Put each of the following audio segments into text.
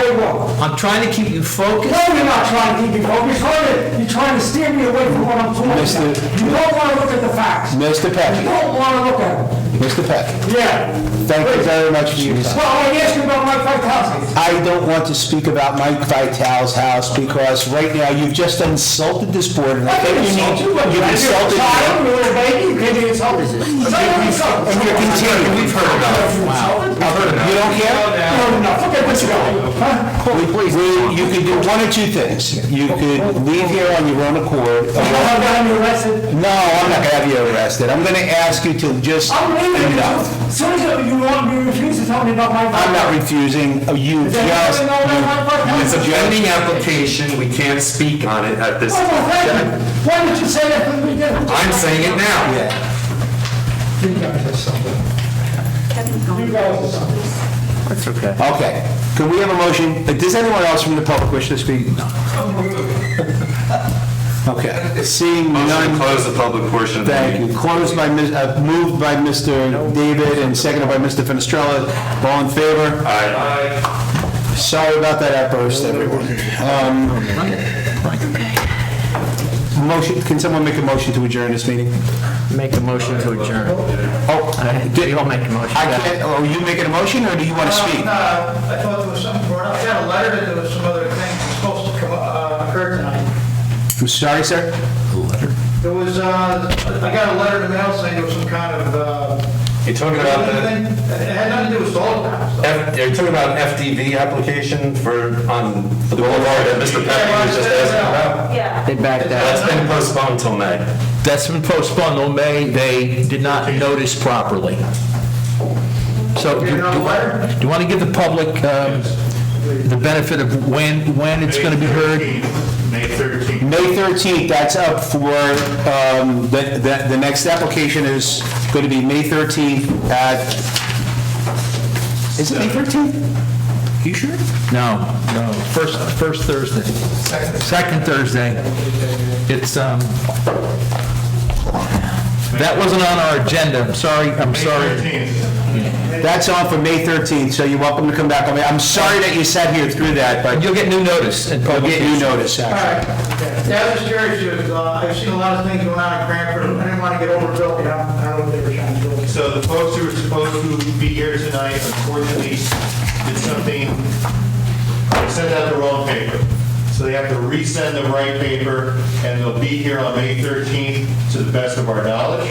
I'm trying to keep you No, focused. you're not trying to keep me focused, are you? You're trying to steer me away from what I'm talking about. Mr. You don't want to look at the facts. You Mr. Peck, don't want to look at them. Mr. Peck, Yeah. thank you very much for your time. Well, I asked you about Mike Vitale's. I don't want to speak about Mike Vitale's house because right now you've just insulted this board and I I think didn't you insult need, you. you've I didn't insulted child, me. you were a baby, you can't insult us. I didn't insult And you. you're continuing. We've heard enough. You don't care? No, no, forget what you got. Huh? We- we- You could do one of two things. You could leave here on your own accord. You know how I got you arrested? No, I'm not gonna have you arrested. I'm gonna ask you to just. I'm leaving you. No. As soon as you want, you refuse to tell me about Mike I'm not Vitale. refusing, you Does anybody just, know about Mike Vitale? It's a pending application, we can't speak on it at this. Oh, well, thank you. Why did you say that from the beginning? I'm saying it now. yeah. You guys are something. Okay. Could we have a motion? Uh, Does anyone else from the public wish to speak? No. Okay. Seeing Motion to none, close the public portion of the meeting. thank you. Closed by, Ms. uh, moved by Mr. David and seconded by Mr. Finestrella. All in favor? Aye. Sorry about that outburst, everyone. Um, Motion, can someone make a motion to adjourn this meeting? Make a motion to adjourn. Oh, Uh, did- You'll make a motion. I can't, are you making a motion, or do you want to speak? No, Uh, I thought there was something brought up. I got a letter that there was some other thing supposed to come, uh, occur tonight. I'm sorry, sir? There was, uh, I got a letter in the mail saying there was some kind of, uh, You're talking about the, thing. It had nothing to do with solar panels. though. F- you're talking about FDV application for, on the boulevard that Mr. Pepe was just asking about? They backed out. That's been postponed till May. That's been postponed on May, they did not notice properly. So, do You know, do letter? you want to give the public um, the benefit of when, when it's going to be heard? May 13th. May 13th, that's up for, um, the, the, the next application is going to be May 13th at, is it May 13th? You sure? No, no, first, first Thursday. Second Thursday. It's, um, that wasn't on our agenda, I'm sorry, I'm sorry. That's on for May 13th, so you're welcome to come back. I mean, I'm sorry that you sat here through that, but You'll get new notice and you'll get publication. new notice, All actually. right. Yeah, I was just curious, because, uh, I've seen a lot of things going on in Cranford. I didn't want to get overbuilt, you know, I don't know what they were trying to do. So the folks who were supposed to be here tonight, unfortunately, did something, sent out the wrong paper. So they have to resend the right paper, and they'll be here on May 13th, to the best of our knowledge.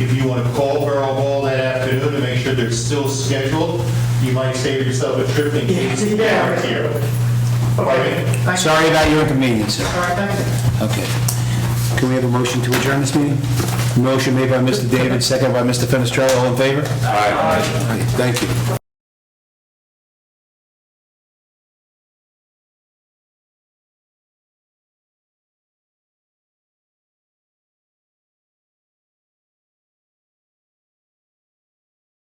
If you want to call Borough Hall that afternoon to make sure they're still scheduled, you might save yourself a trip in case they aren't here. Pardon me? Thank you. Sorry about your inconvenience, sir. All right, thank you. Okay. Can we have a motion to adjourn this meeting? Motion made by Mr. David, second by Mr. Fenestrelli, all in favor? Aye. Thank you.